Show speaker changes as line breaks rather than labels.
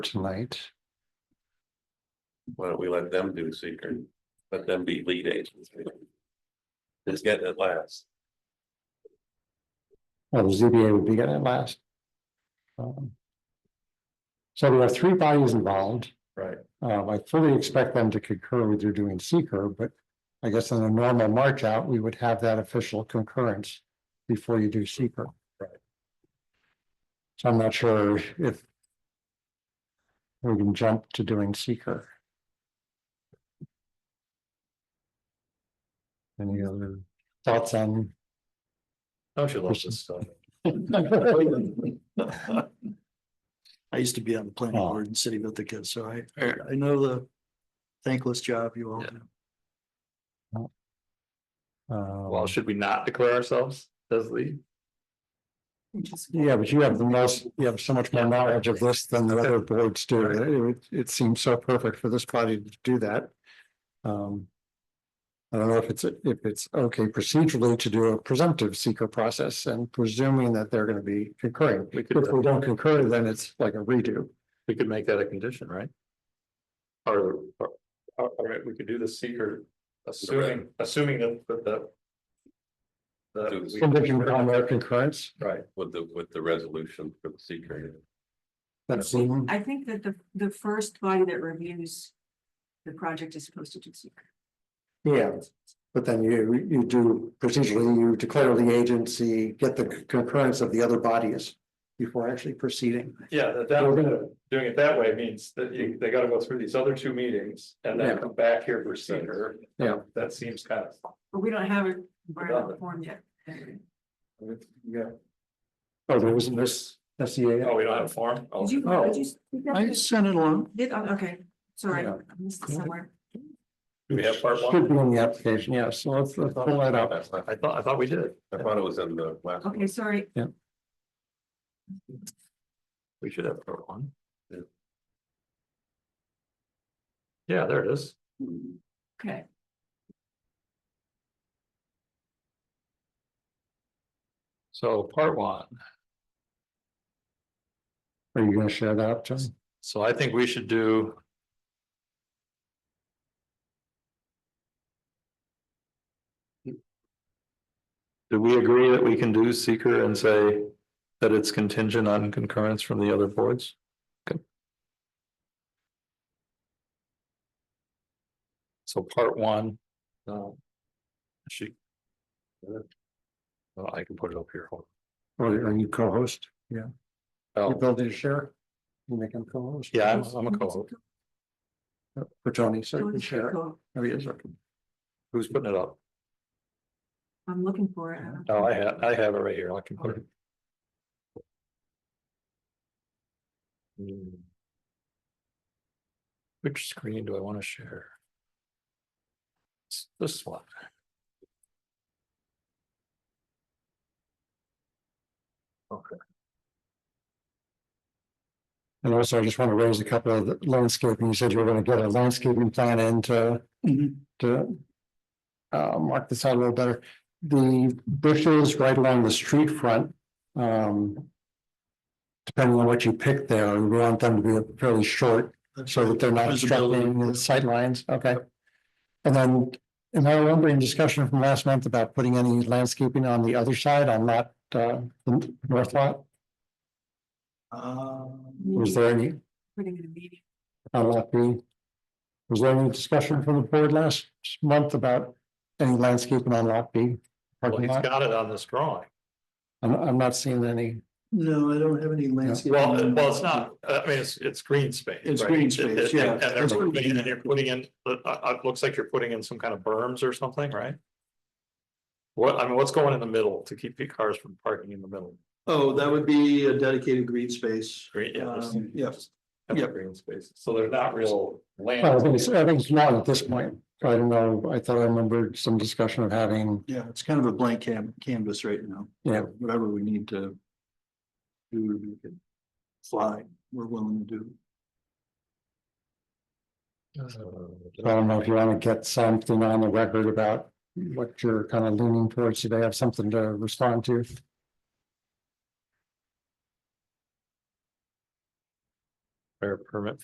tonight.
Why don't we let them do secret? Let them be lead agents. Just get it last.
Well, Oh, the ZBA would be getting it last. Um, So there are three bodies involved.
Right.
Um, I fully expect them to concur with you doing seeker, but I guess in a normal march out, we would have that official concurrence before you do seeker.
Right.
So I'm not sure if we can jump to doing seeker. Any other thoughts on
Oh,
Don't you love this stuff?
I used to be on the planning
Oh.
board in City of Ithaca, so I, I know the thankless job you all do.
Um,
should we not declare ourselves as lead?
yeah, but you have the most, you have so much more knowledge of this than the other boards do. It, it- it seems so perfect for this body to do that. Um. I don't know if it's, if it's okay procedurally to do a presumptive seeker process and presuming that they're gonna be concurring.
We could,
If we don't concur, then it's like a redo.
we could make that a condition, right? Or, or, all right, we could do the seeker, assuming, assuming that, that, the-
Do the
that.
Condition on their concurrence,
we- Right,
With the, with the resolution for the secret.
that's.
I think that the, the first body that reviews the project is supposed to do secret.
Yeah, but then you, you do procedurally, you declare the agency, get the concurrence of the other bodies before actually proceeding.
yeah, that,
We're
that,
gonna,
doing it that way means that you, they gotta go through these other two meetings and then
Yeah.
come back here for seeker.
Yeah.
That seems kind of.
But we don't have it environmental form yet.
Yeah.
oh, there wasn't this S E A.
Oh, we don't have a form? Oh,
Did you,
Oh.
did you? speak up?
I sent it along.
Did, oh, okay, sorry, I
Yeah.
missed it somewhere.
Do we have part one?
Should be in the application, yeah, so let's, let's pull that up.
I thought, I thought we did.
I thought it was in the last.
Okay, sorry,
We should have part one. Yeah, there it is.
okay.
So part one,
Are you gonna share that, up, John?
so I think we should do. Do we agree that we can do seeker and say that it's contingent on concurrence from the other boards? Okay. So part one. um, She. uh, Well, I can put it up here. Hold
Or are you co-host?
on. Oh,
Ability to share? You make him co-host?
yeah, I'm I'm a co.
For Tony, so you
Don't
can
you
share.
go.
Oh, yes, okay.
Who's putting it up?
I'm looking for it. I don't-
Oh, I have, I have it right here. I can put it. Hmm. Which screen do I want to share? It's This one. Okay,
And also, I just want to raise a couple of the landscaping. You said you were gonna get a landscaping plan in to, to. Uh, mark this out a little better. The bushes right along the street front, um. Depending on what you pick there, we want them to be fairly short so that they're not obstructing the sight lines. okay? And then, am I remembering discussion from last month about putting any landscaping on the other side on lot, uh, the north lot?
Um,
Was there any?
Putting in a meeting.
on lot B. Was there any discussion from the board last month about any landscaping on lot B?
well,
Parking
he's
lot?
got it on this drawing.
I'm, I'm not seeing any.
No, I don't have any landscape.
Well, it- well, it's not, uh, I mean, it's, it's green space.
It's
right?
green
It- it-
space, yeah.
And they're putting in- and you're putting in, uh, uh, it looks like you're putting in some kind of berms or something, right? What, I mean, what's going in the middle to keep the cars from parking in the middle?
Oh, that would be a dedicated green space.
Green, yeah. there's-
Um, yes.
and
yeah.
Green spaces, so they're not real
Well, uh, I think
land.
it's, I think it's not at this point. I don't know. I thought I remembered some discussion of having,
Yeah, it's kind of a blank cam- canvas right now.
Yeah.
Whatever we need to do, to make it fly, we're willing to do.
I don't know if you want to get something on the record about what you're kind of leaning towards. Do they have something to respond to?
Or permit